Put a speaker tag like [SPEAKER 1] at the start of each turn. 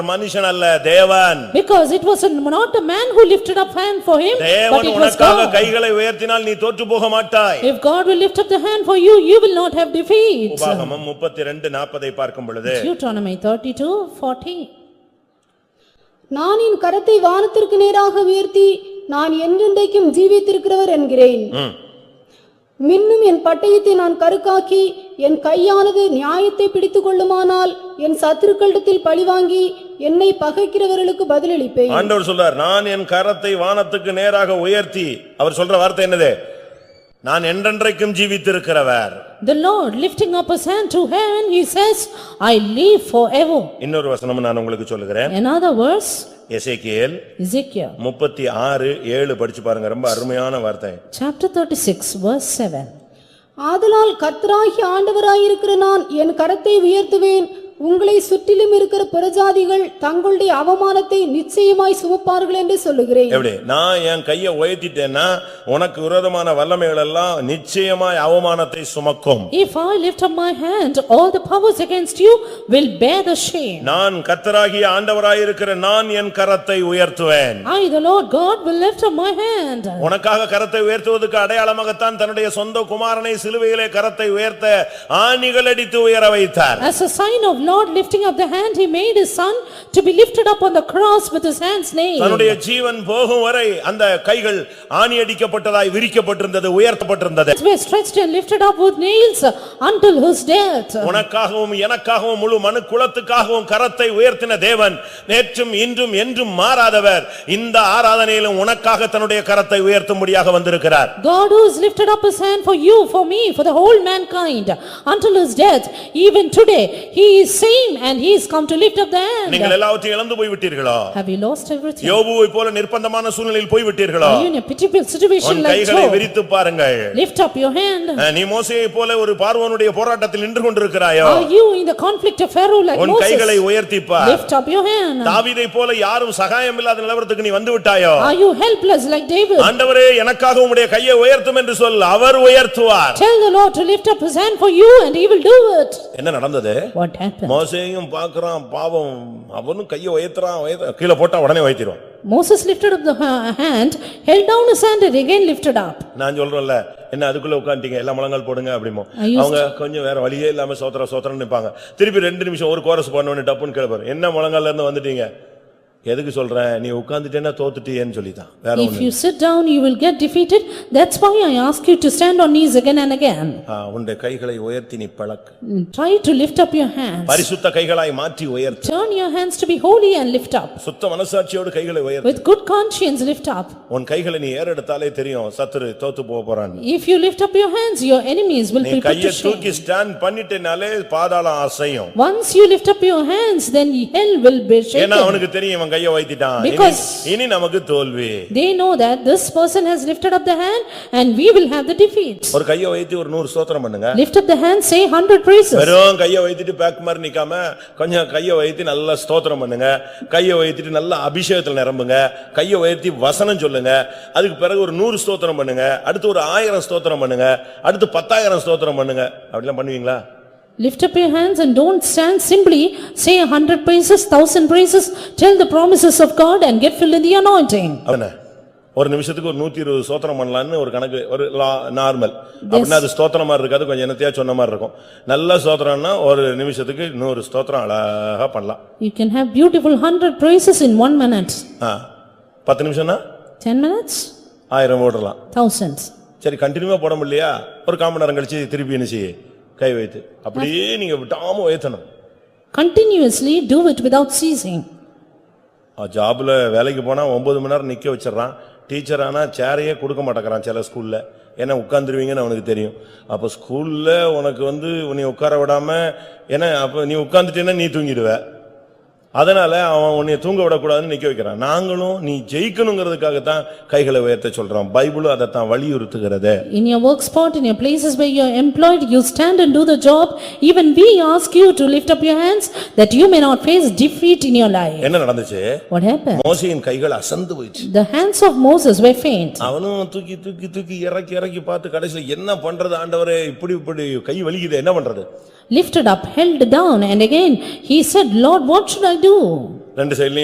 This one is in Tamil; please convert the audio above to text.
[SPEAKER 1] மனுஷன் அல்ல தேவன்
[SPEAKER 2] Because it was not a man who lifted up hand for him, but
[SPEAKER 1] தேவன்
[SPEAKER 2] it was
[SPEAKER 1] உனக்காக
[SPEAKER 2] God.
[SPEAKER 1] கைகளை உயர்த்தினால் நீ தோற்று போக மாட்டாய்
[SPEAKER 2] If God will lift up the hand for you, you will not have defeat.
[SPEAKER 1] உபாகமம் முப்பத்தி ரெண்டு நாற்பதை பார்க்கும் பொழுது
[SPEAKER 2] Deuteronomy thirty-two, fourteen.
[SPEAKER 3] நான் என் கரத்தை வானத்திற்கு நேராக உயர்த்தி நான் என்றென்றைக்கும் ஜீவித்திருக்கிறவர் என்கிறேன்
[SPEAKER 1] ம்.
[SPEAKER 3] மின்னும் என் பட்டயத்தை நான் கருக்காக்கி என் கையானது நியாயத்தை பிடித்துக் கொள்ளுமானால் என் சத்துருக்களிடத்தில் பழிவாங்கி என்னை பகைக்கிறவர்களுக்கு பதிலளிப்பேன்
[SPEAKER 1] ஆண்டவர் சொல்றார் நான் என் கரத்தை வானத்துக்கு நேராக உயர்த்தி அவர் சொல்ற வார்த்தை என்னது நான் என்றென்றைக்கும் ஜீவித்திருக்கிறவர்
[SPEAKER 2] The Lord lifting up his hand to heaven, he says, "I live forever."
[SPEAKER 1] இன்னொரு வசனம் நான் உங்களுக்கு சொல்லுகிறேன்
[SPEAKER 2] Another verse,
[SPEAKER 1] எசேக்கியேல்
[SPEAKER 2] Ezekiel,
[SPEAKER 1] முப்பத்தி ஆறு ஏழு படிச்சு பாருங்க ரொம்ப அருமையான வார்த்தை
[SPEAKER 2] chapter thirty-six, verse seven.
[SPEAKER 3] ஆதலால் கர்த்தராகி ஆண்டவராயிருக்கிற நான் என் கரத்தை உயர்த்துவேன் உங்களை சுற்றிலும் இருக்கிற புறஜாதிகள் தங்களுடைய அவமானத்தை நிச்சயமாய் சுமப்பார்கள் என்று சொல்லுகிறேன்
[SPEAKER 1] எப்படி நான் என் கையை உயர்த்திட்டேன்னா உனக்கு விரோதமான வல்லமைகள் எல்லாம் நிச்சயமாய் அவமானத்தை சுமக்கும்
[SPEAKER 2] If I lift up my hand, all the powers against you will bear the shame.
[SPEAKER 1] நான் கத்தராகிய ஆண்டவராயிருக்கிற நான் என் கரத்தை உயர்த்துவேன்
[SPEAKER 2] I, the Lord God, will lift up my hand.
[SPEAKER 1] உனக்காக கரத்தை உயர்த்துவதற்கு அடையாளமாகத்தான் தன்னுடைய சொந்த குமாரனை சிலுவையிலே கரத்தை உயர்த்த ஆணிகள் அடித்து உயர வைத்தார்
[SPEAKER 2] As a sign of Lord lifting up the hand, he made his son to be lifted up on the cross with his hands nailed.
[SPEAKER 1] தன்னுடைய ஜீவன் போகும் வரை அந்த கைகள் ஆணி அடிக்கப்பட்டதாய் விரிக்கப்பட்டிருந்தது உயர்த்தப்பட்டிருந்தது
[SPEAKER 2] Were stretched and lifted up with nails until his death.
[SPEAKER 1] உனக்காகவும் எனக்காகவும் முழு மனு குலத்துக்காகவும் கரத்தை உயர்த்தின தேவன் நேற்றும் இன்றும் என்றும் மாறாதவர் இந்த ஆராதனையிலும் உனக்காக தன்னுடைய கரத்தை உயர்த்தும்படியாக வந்திருக்கிறார்
[SPEAKER 2] God who has lifted up his hand for you, for me, for the whole mankind, until his death, even today, he is same and he is come to lift up the hand.
[SPEAKER 1] நீங்கள் எல்லாவற்றையும் இழந்து போய்விட்டீர்களோ
[SPEAKER 2] Have you lost everything?
[SPEAKER 1] யோபுவை போல நிர்பந்தமான சூழ்நிலையில் போய்விட்டீர்களோ
[SPEAKER 2] Are you in a pitiable situation
[SPEAKER 1] உன்
[SPEAKER 2] like
[SPEAKER 1] கைகளை
[SPEAKER 2] Job?
[SPEAKER 1] விரித்து பாருங்கள்
[SPEAKER 2] Lift up your hand.
[SPEAKER 1] நீ மோசையை போல ஒரு பார்வோனுடைய போராட்டத்தில் நின்று கொண்டிருக்கிறாயோ
[SPEAKER 2] Are you in the conflict of Pharaoh like
[SPEAKER 1] உன் கைகளை
[SPEAKER 2] Moses?
[SPEAKER 1] உயர்த்திப்பார்
[SPEAKER 2] Lift up your hand.
[SPEAKER 1] தாவீதை போல யாரும் சகாயம் இல்லாத நிலவரத்துக்கு நீ வந்து விட்டாயோ
[SPEAKER 2] Are you helpless like David?
[SPEAKER 1] ஆண்டவரே எனக்காக உம்முடைய கையை உயர்த்தும் என்று சொல் அவர் உயர்த்துவார்
[SPEAKER 2] Tell the Lord to lift up his hand for you and he will do it.
[SPEAKER 1] என்ன நடந்தது
[SPEAKER 2] What happened?
[SPEAKER 1] மோசையும் பார்க்கறான் பாவம் அவனும் கையை உயர்த்துறான் உயர்த்த- கீழே போட்டா உடனே உயர்த்திடுவான்
[SPEAKER 2] Moses lifted up the ha- hand, held down his hand and again lifted up.
[SPEAKER 1] நான் சொல்றேன்ல என்ன அதுக்குள்ள உட்காந்துட்டீங்க எல்லா முழங்கால் போடுங்க அப்படிமோ
[SPEAKER 2] I used-
[SPEAKER 1] அவங்க கொஞ்சம் வேற வழியே இல்லாம சோத்திர சோத்திரன்னு நிப்பாங்க திருப்பி ரெண்டு நிமிஷம் ஒரு கோரஸ் பண்ணவனே டப்புன்னு கேட்பாரு என்ன முழங்கால்ல இருந்து வந்துட்டீங்க எதுக்கு சொல்றேன் நீ உட்கார்ந்துட்டேன்னா தோத்துட்டியேன்னு சொல்லிதான் வேற
[SPEAKER 2] If
[SPEAKER 1] ஒண்ணு
[SPEAKER 2] you sit down, you will get defeated. That's why I ask you to stand on knees again and again. Mm,
[SPEAKER 1] ஆ, உன்னுடைய கைகளை உயர்த்தி நீ பழக்கு
[SPEAKER 2] Try to lift up your hands.
[SPEAKER 1] பரிசுத்த கைகளாய் மாற்றி உயர்த்து
[SPEAKER 2] Turn your hands to be holy and lift up.
[SPEAKER 1] சுத்த மனசாட்சியோடு கைகளை உயர்த்து
[SPEAKER 2] With good conscience, lift up.
[SPEAKER 1] உன் கைகளை நீ ஏறெடுத்தாலே தெரியும் சத்துரு தோத்து போக போறான்
[SPEAKER 2] If you lift up your hands, your enemies will
[SPEAKER 1] நீ
[SPEAKER 2] be put
[SPEAKER 1] கையை
[SPEAKER 2] to shame.
[SPEAKER 1] தூக்கி ஸ்டாண்ட் பண்ணிட்டேனாலே பாதாளம் அசையும்
[SPEAKER 2] Once you lift up your hands, then hell will be
[SPEAKER 1] ஏன்னா
[SPEAKER 2] shaken.
[SPEAKER 1] அவனுக்கு தெரியும் இவன் கையை வைத்திட்டான் இனி-
[SPEAKER 2] Because-
[SPEAKER 1] இனி நமக்கு தோல்வி
[SPEAKER 2] They know that this person has lifted up the hand and we will have the defeat.
[SPEAKER 1] ஒரு கையை வைத்து ஒரு நூறு ஸ்தோத்திரம் பண்ணுங்க
[SPEAKER 2] Lift up the hand, say hundred praises.
[SPEAKER 1] வெறும் கையை வைத்துட்டு பேக் மாதிரி நிக்காம கொஞ்சம் கையை வைத்து நல்லா ஸ்தோத்திரம் பண்ணுங்க கையை வைத்துட்டு நல்லா அபிஷேகத்துல நிரம்புங்க கையை உயர்த்தி வசனம் சொல்லுங்க அதுக்கு பிறகு ஒரு நூறு ஸ்தோத்திரம் பண்ணுங்க அடுத்து ஒரு ஆயிரம் ஸ்தோத்திரம் பண்ணுங்க அடுத்து பத்தாயிரம் ஸ்தோத்திரம் பண்ணுங்க அப்படிலாம் பண்ணுவீங்களா
[SPEAKER 2] Lift up your hands and don't stand simply, say a hundred praises, thousand praises, tell the promises of God and get filled in the anointing.
[SPEAKER 1] அவன ஒரு நிமிஷத்துக்கு ஒரு நூத்தி இருபது ஸ்தோத்திரம் பண்ணலாம்னு ஒரு கணக்கு ஒரு நார்மல் அப்படின்னா அது ஸ்தோத்திரம் மாதிரி இருக்காது கொஞ்சம் என்னத்தையா சொன்ன மாதிரி இருக்கும் நல்ல ஸ்தோத்திரம்னா ஒரு நிமிஷத்துக்கு நூறு ஸ்தோத்திரம் அழகா பண்ணலாம்
[SPEAKER 2] You can have beautiful hundred praises in one minute,
[SPEAKER 1] ஆ, பத்து நிமிஷம்னா
[SPEAKER 2] ten minutes,
[SPEAKER 1] ஆயிரம் ஓடலாம்
[SPEAKER 2] thousands.
[SPEAKER 1] சரி கண்டினியூவா போட முடியலையா ஒரு காமன் நேரம் கழிச்சு திருப்பி என்ன செய்ய கை வைத்து அப்படியே நீங்க விட்டாம உயர்த்தணும்
[SPEAKER 2] Continuously do it without ceasing.
[SPEAKER 1] ஆ, ஜாப்ல வேலைக்கு போனா ஒன்பது மணி நேரம் நிக்க வச்சிடறான் டீச்சர் ஆனா சேரையே கொடுக்க மாட்டேங்கிறான் சில ஸ்கூல்ல ஏன்னா உட்காந்துருவீங்கன்னு அவனுக்கு தெரியும் அப்ப ஸ்கூல்ல உனக்கு வந்து உன்னை உட்கார விடாம ஏன்னா அப்ப நீ உட்கார்ந்துட்டேன்னா நீ தூங்கிடுவ அதனால அவன் உன்னை தூங்க விடக்கூடாதுன்னு நிக்க வைக்கிறான் நாங்களும் நீ ஜெயிக்கணுங்கிறதுக்காகத்தான் கைகளை உயர்த்த சொல்றோம் பைபிளும் அதைத்தான் வலியுறுத்துகிறது
[SPEAKER 2] In your work spot, in your places where you are employed, you stand and do the job. Even we ask you to lift up your hands that you may not face defeat in your life.
[SPEAKER 1] என்ன நடந்துச்சு
[SPEAKER 2] What happened?
[SPEAKER 1] மோசையின் கைகள் அசந்து போயிடுச்சு
[SPEAKER 2] The hands of Moses were faint.
[SPEAKER 1] அவனும் தூக்கி தூக்கி தூக்கி இறக்கி இறக்கி பார்த்து கடைசில என்ன பண்றது ஆண்டவரே இப்படி இப்படி கை வலிக்குது என்ன பண்றது
[SPEAKER 2] Lifted up, held down and again he said, "Lord, what should I do?"
[SPEAKER 1] ரெண்டு சைடுலயும்